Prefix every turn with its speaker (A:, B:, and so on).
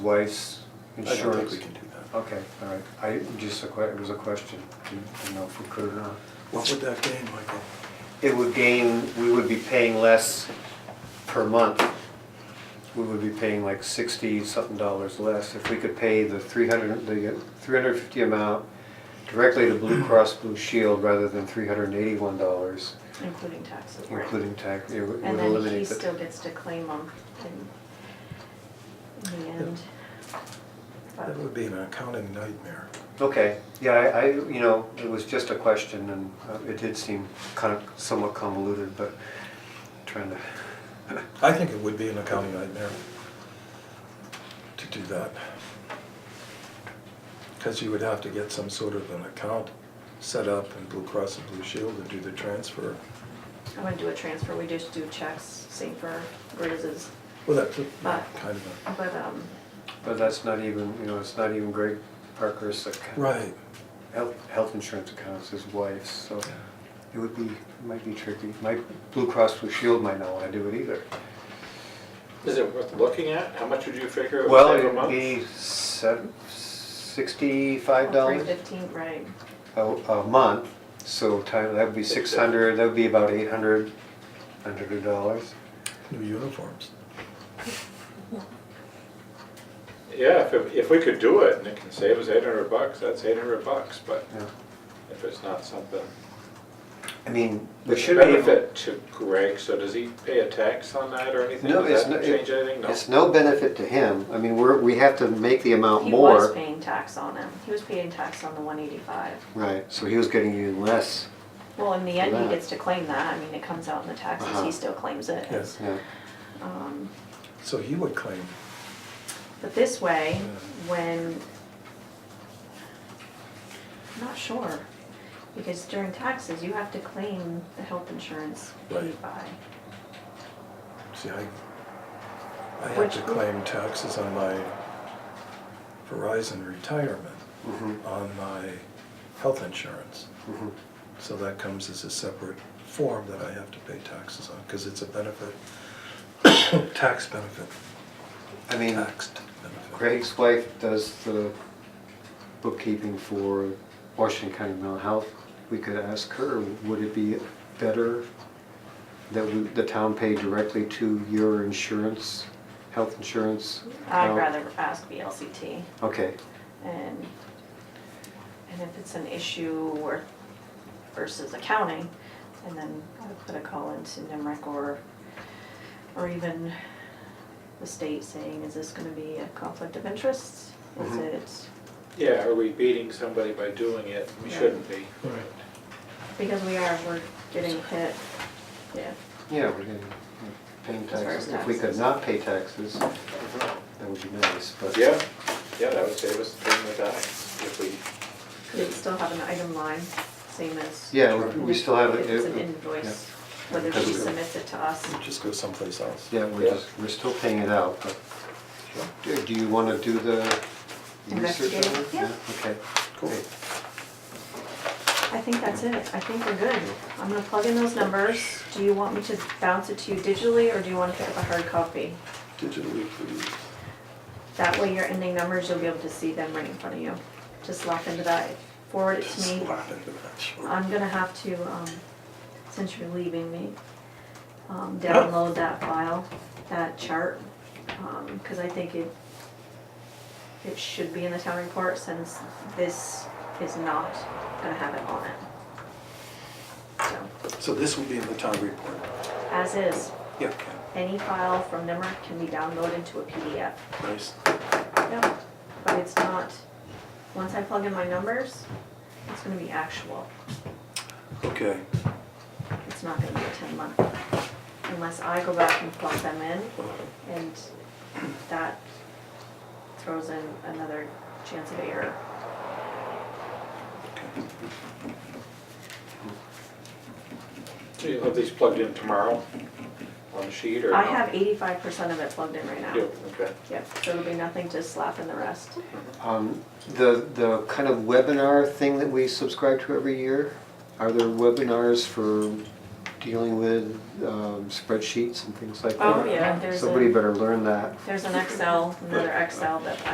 A: Weiss
B: I
A: Insurance.
B: don't think we can do that.
A: Okay, all right. I, just a que, it was a question, didn't didn't know if we could or not.
B: What would that gain, Michael?
A: It would gain, we would be paying less per month. We would be paying like sixty something dollars less if we could pay the three hundred, the three hundred fifty amount directly to Blue Cross Blue Shield rather than three hundred and eighty-one dollars,
C: Including taxes.
A: including tax, it would it would
C: And then he
A: eliminate the.
C: still gets to claim them in, in the end. But
B: That would be an accounting nightmare.
A: Okay, yeah, I, I, you know, it was just a question and uh, it did seem kind of somewhat convoluted, but trying to,
B: I think it would be an accounting nightmare to do that. Because you would have to get some sort of an account set up in Blue Cross and Blue Shield and do the transfer.
C: I wouldn't do a transfer, we just do checks, same for raises.
B: Well, that's a-
C: But-
B: kind of a,
C: But, um,
A: but that's not even, you know, it's not even Greg Parker's account.
B: right.
A: Health, health insurance accounts, his wife's, so it would be, it might be tricky. My Blue Cross Blue Shield might not want to do it either.
D: Is it worth looking at? How much would you figure it would
A: Well,
D: save a
A: it'd
D: month?
A: be seven, sixty-five
C: three
A: dollars
C: fifteen, right,
A: a, a month, so time, that'd be six hundred, that'd be about eight hundred, hundred dollars.
B: New uniforms.
D: Yeah, if, it- if we could do it and it can save us eight hundred bucks, that's eight hundred bucks, but
A: Yeah.
D: if it's not something.
A: I mean, we
D: It's
A: should
D: a
A: be able.
D: benefit to Greg, so does he pay a tax on that or anything?
A: No,
D: Does
A: it's no-
D: that change anything? No.
A: It's no benefit to him. I mean, we're, we have to make the amount
C: he was
A: more.
C: paying tax on them, he was paying tax on the one eighty-five.
A: Right, so he was getting even less.
C: Well, in the end, he
A: Right.
C: gets to claim that, I mean, it comes out in the taxes,
A: Uh-huh.
C: he still claims it.
B: Yes.
A: Yeah,
C: Um,
B: So he would claim.
C: But this way,
B: Yeah.
C: when, I'm not sure, because during taxes, you have to claim the health insurance paid
B: Right.
C: by.
B: See, I, I had
C: Which-
B: to claim taxes on my Verizon retirement,
A: Mhm.
B: on my health insurance.
A: mhm.
B: So that comes as a separate form that I have to pay taxes on, because it's a benefit, tax benefit,
A: I mean,
B: taxed benefit.
A: Greg's wife does the bookkeeping for Washington County Mental Health. We could ask her, would it be better that we- the town pay directly to your insurance, health insurance?
C: I'd
A: account?
C: rather ask VLCT,
A: Okay,
C: and, and if it's an issue or versus accounting, and then I would put a call into NIMRIC or, or even the state saying, is this gonna be a conflict of interest?
B: Mm-hmm.
C: Is
A: Mhm.
C: it?
D: Yeah, are we beating somebody by doing it? We
C: Yeah.
D: shouldn't be.
B: Right.
C: Because we are, we're getting hit, yeah.
A: yeah, we're getting, paying
C: As far as
A: taxes. If we could
C: taxes.
A: not pay taxes, that would be nice, but.
D: Yeah, yeah, that would save us paying the tax if we
C: Could it still have an item line, same as?
A: Yeah, we- we still have
C: If
A: it.
C: it's an
A: it-
C: invoice, whether she submits it to us.
B: Just go someplace else.
A: Yeah, we're
D: Yeah.
A: just, we're still paying it out, but do do you want to do the research on
C: Investigate,
A: it?
C: yeah.
A: Okay.
B: Cool.
C: I think that's it, I think we're good. I'm gonna plug in those numbers. Do you want me to bounce it to you digitally, or do you wanna pick up a hard copy?
B: Digitally, please.
C: That way your ending numbers, you'll be able to see them right in front of you. Just lock into that, forward it to
B: Just
C: me.
B: slap into that, sure.
C: I'm gonna have to, um, since you're leaving me, um, download that file, that chart, um, cause I think it, it should be in the town report since this is not gonna have it on it. So,
B: So this will be in the town report.
C: as is,
B: Yeah,
C: any file from NIMRIC can be downloaded to a PDF.
B: nice.
C: Yep, but it's not, once I plug in my numbers, it's gonna be actual.
B: Okay,
C: It's not gonna be a ten month, unless I go back and plug them in, and that throws in another chance of error.
D: So you'll have these plugged in tomorrow on the sheet or?
C: I
D: no?
C: have eighty-five percent of it plugged in right now.
D: You, okay.
C: Yep, so it'll be nothing to slap in the rest.
A: Um, The, the kind of webinar thing that we subscribe to every year, are there webinars for dealing with um, spreadsheets and things like that.
C: Oh, yeah, there's
A: Somebody
C: a-
A: better learn that.
C: There's an Excel, another Excel that